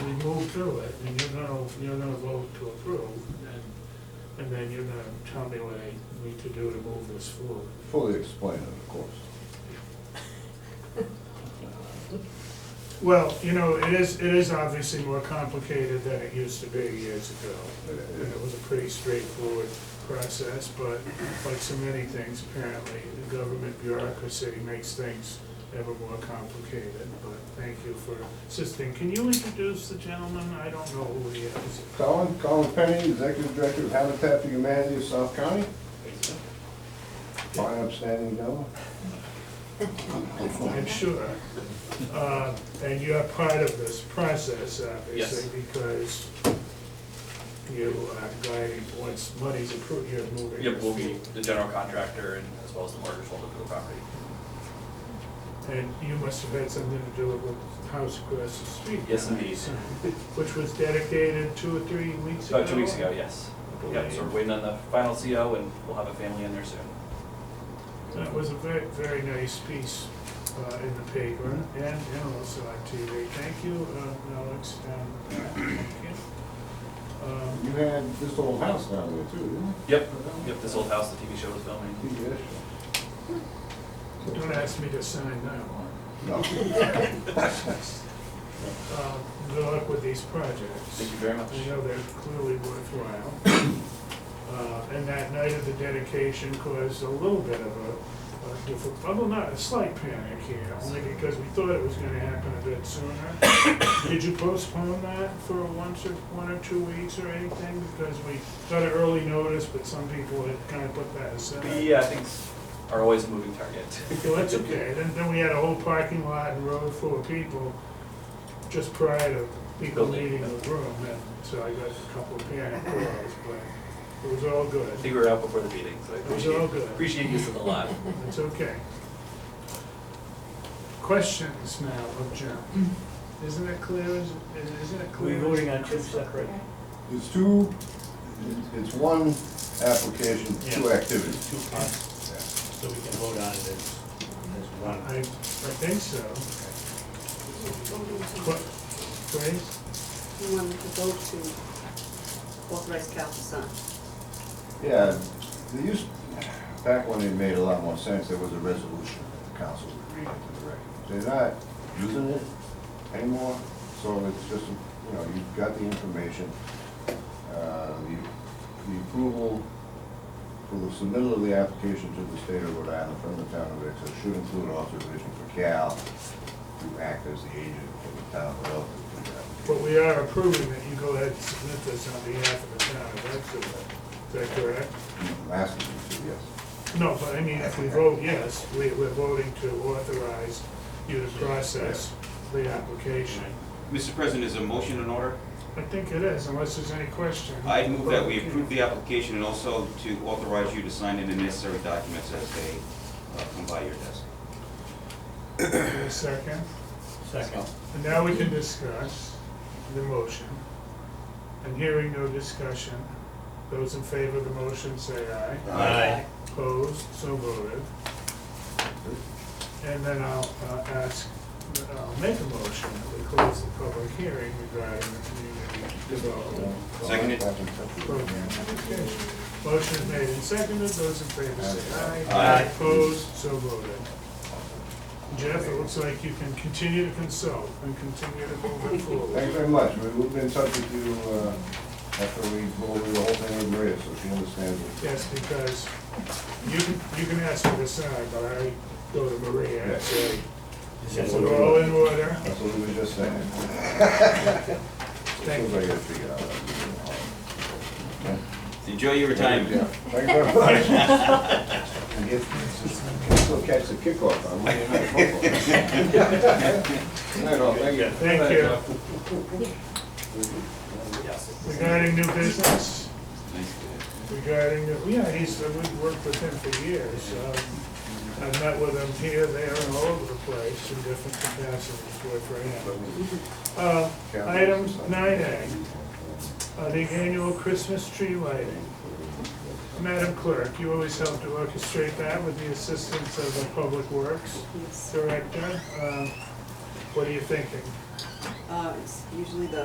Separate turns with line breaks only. through it, and you're gonna, you're gonna vote to approve, and, and then you're gonna tell me what I need to do to move this forward.
Fully explain it, of course.
Well, you know, it is, it is obviously more complicated than it used to be years ago. And it was a pretty straightforward process, but like so many things, apparently, the government bureaucracy makes things ever more complicated, but thank you for assisting. Can you introduce the gentleman? I don't know who he is.
Colin, Colin Penny, Executive Director of Habitat for Humanity of South County. Fine, upstanding gentleman.
I'm sure. Uh, And you're part of this process, obviously, because you are guiding, once money's approved, you're moving.
Yep, we'll be the general contractor and as well as the mortgage holder for the property.
And you must have had something to do with the house across the street.
Yes, indeed.
Which was dedicated two or three weeks ago?
About two weeks ago, yes. Yep, so we're waiting on the final CO and we'll have a family in there soon.
That was a very, very nice piece uh, in the paper and, and also on TV. Thank you, uh, Alex, and Pat. thank you. Um,
You had this old house down there too, didn't
Yep, yep, this old house the TV show was filming.
you? Yes.
Don't ask me to sign that one.
No.
Uh, Good luck with these projects.
Thank you very much.
I know they're clearly worthwhile. Uh, And that night of the dedication caused a little bit of a a difficult, well, not a slight panic here, only because we thought it was gonna happen a bit sooner. Did you postpone that for once or, one or two weeks or anything? Because we got an early notice, but some people had kind of put that aside.
Yeah, things uh, are always a moving target.
Well, that's okay, then, then we had a whole parking lot and road full of people just prior to people
Building.
leaving the room, and so I got a couple of panic calls, but it was all
I
good,
think we were out before the meeting, so I
It was all
appreciate,
good.
appreciate you in the lot.
it's okay. Questions now of Jim, isn't it clear, as- is- isn't it clear?
We're
as-
voting on two separate.
It's two, it's one application, two
Yeah.
activities.
Two parts, so we can vote on it as, as
I,
one.
I think so. What, Grace?
You wanted to go to authorize Cal to sign.
Yeah, they used, back when it made a lot more sense, there was a resolution that the council would read into the record. They're not using it anymore, so it's just, you know, you've got the information. Uh, The the approval for the submittal of the application to the state of Rhode Island from the town of Exeter should include authorization for Cal to act as the agent for the town of Exeter.
But we are approving that you go ahead and submit this on behalf of the town of Exeter, is that correct?
I'm asking you to, yes.
No, but I mean, if we vote yes, we, we're voting to authorize you to process the application.
Mr. President, is a motion in order?
I think it is, unless there's any question.
I move that we approve the application and also to authorize you to sign in the necessary documents as they uh, come by your desk.
Wait a second,
Second.
and now we can discuss the motion. And hearing no discussion, those in favor of the motion say aye.
Aye.
Opposed, so voted. And then I'll uh, ask, I'll make a motion that we close the public hearing regarding the community development
Seconded.
program application. Motion is made and seconded, those in favor say aye.
Aye.
Opposed, so voted. Jeff, it looks like you can continue to consult and continue to move it
Thanks
forward.
very much. We- We've been in touch with you uh, after we go over the whole thing with Maria, so she understands it.
Yes, because you can, you can ask me to sign, but I go to Maria and say,
Is that
it's
what
all in order.
That's what we were just saying.
Thank
Seems like I gotta figure it out. Okay.
Enjoy your
Yeah.
retirement.
Thanks very much. And get- can Still catch the kickoff on Monday Night Football. Night, all. Thank you.
Thank you.
Yes.
Regarding new business,
Nice.
regarding, the- yeah, he's, we've worked with him for years. um, I've met with him here, there, and all over the place in different capacities, worked for him. Uh, Item nine A, uh, the annual Christmas tree lighting. Madam Clerk, you always help to orchestrate that with the assistance of the Public Works
Yes.
Director. Uh, What are you thinking?
Uh, it's usually the